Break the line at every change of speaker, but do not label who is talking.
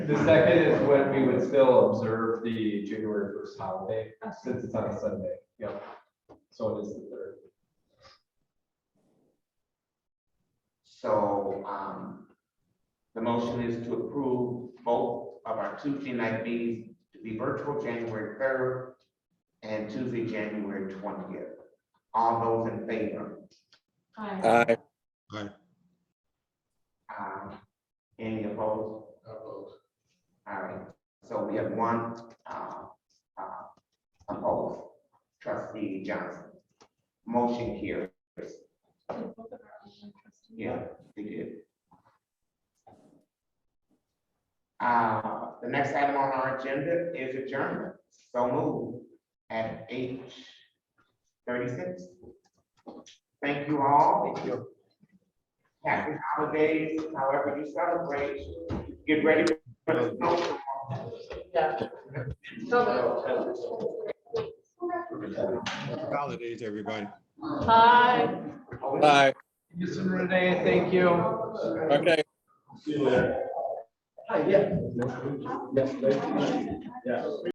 The second is when we would still observe the January first holiday, since it's on a Sunday, yep. So it is the third.
So, um, the motion is to approve both of our Tuesday night meetings to be virtual January third and Tuesday, January twentieth. All those in favor?
Aye.
Aye.
Um, any opposed? Opposed. All right, so we have one, uh, uh, opposed. Trustee Johnson. Motion carries. Yeah, they did. Uh, the next item on our agenda is adjournment, so move at eight thirty-six. Thank you all. Thank you. Happy holidays, however you celebrate, get ready for the snow.
Holidays, everybody.
Aye.
Bye.
Mr. Renee, thank you.
Okay.